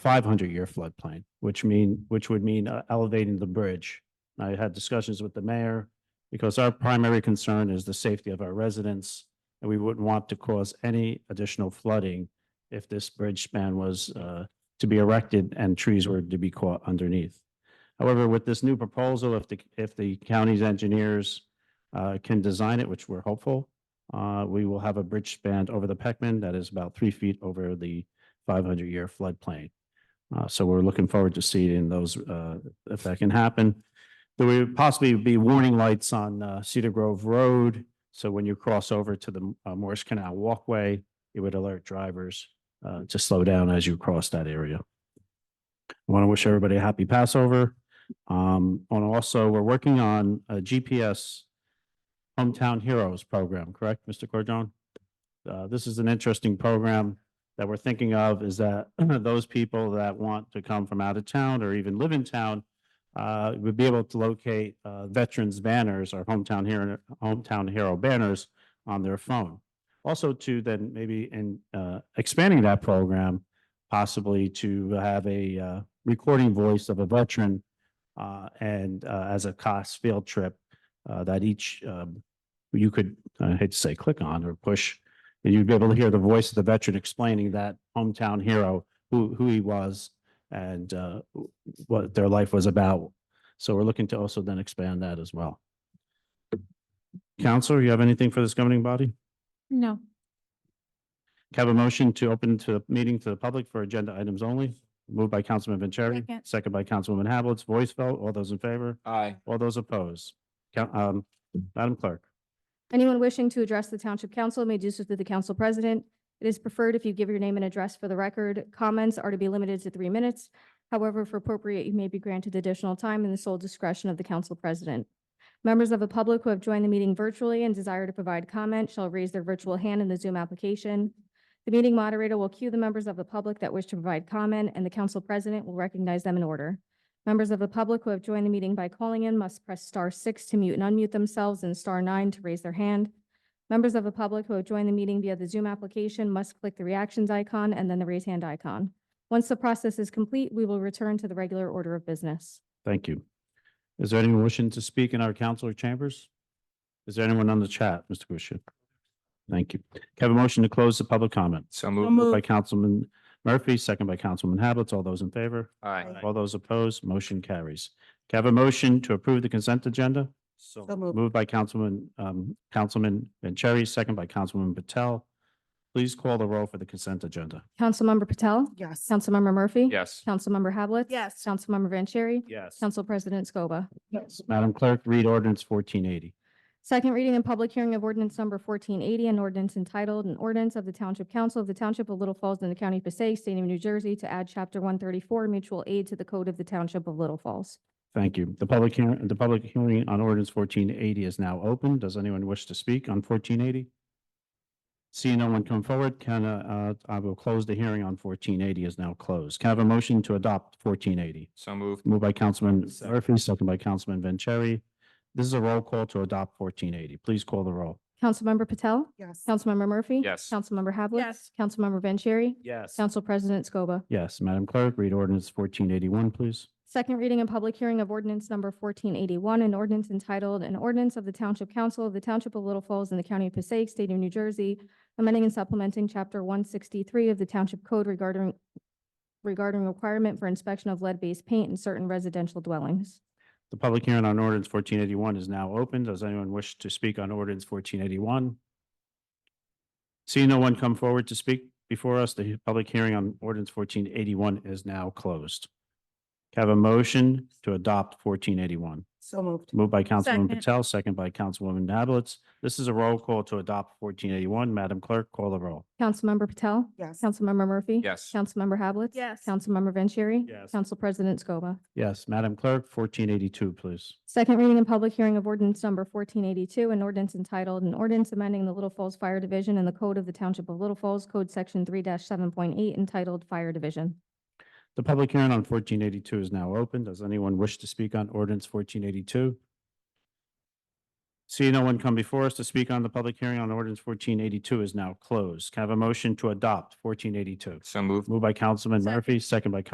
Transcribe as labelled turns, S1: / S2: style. S1: five hundred year floodplain, which mean, which would mean uh, elevating the bridge. I had discussions with the mayor because our primary concern is the safety of our residents. And we wouldn't want to cause any additional flooding if this bridge span was uh to be erected and trees were to be caught underneath. However, with this new proposal, if the, if the county's engineers uh can design it, which we're hopeful, uh, we will have a bridge span over the Peckman that is about three feet over the five hundred year floodplain. Uh, so we're looking forward to seeing those, uh, if that can happen. There would possibly be warning lights on, uh, Cedar Grove Road. So when you cross over to the uh, Morris Canal Walkway, it would alert drivers, uh, to slow down as you cross that area. I want to wish everybody a happy Passover. Um, and also, we're working on a GPS Hometown Heroes program, correct, Mr. Cordon? Uh, this is an interesting program that we're thinking of is that those people that want to come from out of town or even live in town uh, would be able to locate uh, veterans banners or hometown hero, hometown hero banners on their phone. Also to then maybe in uh, expanding that program, possibly to have a uh, recording voice of a veteran uh, and uh, as a cost field trip uh, that each um, you could, I hate to say, click on or push and you'd be able to hear the voice of the veteran explaining that hometown hero, who, who he was and uh, what their life was about. So we're looking to also then expand that as well. Counselor, you have anything for this governing body? Can
S2: No.
S1: I Have a motion to open to the meeting to the public for agenda items only? Moved by Councilman Vanchery,
S2: Second.
S1: second by Councilwoman Havelitz, voice vote. All those in favor?
S3: Aye.
S1: All those opposed? Count, um, Madam Clerk.
S2: Anyone wishing to address the Township Council may do so through the Council President. It is preferred if you give your name and address for the record. Comments are to be limited to three minutes. However, if appropriate, you may be granted additional time in the sole discretion of the Council President. Members of the public who have joined the meeting virtually and desire to provide comment shall raise their virtual hand in the Zoom application. The meeting moderator will cue the members of the public that wish to provide comment, and the Council President will recognize them in order. Members of the public who have joined the meeting by calling in must press star six to mute and unmute themselves and star nine to raise their hand. Members of the public who have joined the meeting via the Zoom application must click the reactions icon and then the raise hand icon. Once the process is complete, we will return to the regular order of business.
S1: Thank you. Is there anyone wishing to speak in our council chambers? Is there anyone on the chat, Mr. Kusia? Thank you. Can I Have a motion to close the public comment.
S3: So
S1: Moved
S3: moved.
S1: by Councilman Murphy, second by Councilman Hablitz. All those in favor?
S3: Aye.
S1: All those opposed, motion carries. Can I Have a motion to approve the consent agenda?
S3: So
S1: Moved by Councilman, um, Councilman Vanchery, second by Councilman Patel. Please call the roll for the consent agenda.
S2: Councilmember Patel?
S4: Yes.
S2: Councilmember Murphy?
S3: Yes.
S2: Councilmember Hablitz,
S4: Yes.
S2: Councilmember Vanchery?
S1: Yes.
S2: Council President Scoba.
S1: Madam Clerk, read ordinance fourteen eighty.
S2: Second reading and public hearing of ordinance number fourteen eighty, an ordinance entitled, an ordinance of the Township Council of the Township of Little Falls in the County of Passaic, State of New Jersey, to add chapter one thirty-four, mutual aid to the code of the Township of Little Falls.
S1: Thank you. The public hearing, the public hearing on ordinance fourteen eighty is now open. Does anyone wish to speak on fourteen eighty? Seeing no one come forward, can, uh, uh, I will close the hearing on fourteen eighty is now closed. Can I have a motion to adopt fourteen eighty?
S3: So moved.
S1: Moved by Councilman
S3: Second.
S1: Murphy, second by Councilman Vanchery. This is a roll call to adopt fourteen eighty. Please call the roll.
S2: Councilmember Patel?
S4: Yes.
S2: Councilmember Murphy?
S3: Yes.
S2: Councilmember Havlet?
S4: Yes.
S2: Councilmember Vanchery?
S1: Yes.
S2: Council President Scoba.
S1: Yes, Madam Clerk, read ordinance fourteen eighty-one, please.
S2: Second reading and public hearing of ordinance number fourteen eighty-one, an ordinance entitled, an ordinance of the Township Council of the Township of Little Falls in the County of Passaic, State of New Jersey, amending and supplementing chapter one sixty-three of the Township Code regarding regarding requirement for inspection of lead-based paint in certain residential dwellings.
S1: The public hearing on ordinance fourteen eighty-one is now open. Does anyone wish to speak on ordinance fourteen eighty-one? Seeing no one come forward to speak before us, the public hearing on ordinance fourteen eighty-one is now closed. Can I Have a motion to adopt fourteen eighty-one.
S4: So moved.
S1: Moved by Councilwoman
S4: Second.
S1: Patel, second by Councilwoman Havelitz. This is a roll call to adopt fourteen eighty-one. Madam Clerk, call the roll.
S2: Councilmember Patel?
S4: Yes.
S2: Councilmember Murphy?
S3: Yes.
S2: Councilmember Hablitz,
S4: Yes.
S2: Councilmember Vanchery?
S1: Yes.
S2: Council President Scoba.
S1: Yes, Madam Clerk, fourteen eighty-two, please.
S2: Second reading and public hearing of ordinance number fourteen eighty-two, an ordinance entitled, an ordinance amending the Little Falls Fire Division and the Code of the Township of Little Falls, Code Section three seven point eight, entitled Fire Division.
S1: The public hearing on fourteen eighty-two is now open. Does anyone wish to speak on ordinance fourteen eighty-two? See no one come before us to speak on the public hearing on ordinance fourteen eighty-two is now closed. Can I have a motion to adopt fourteen eighty-two?
S3: So moved.
S1: Moved by Councilman
S4: Second.
S1: Murphy, second by Councilman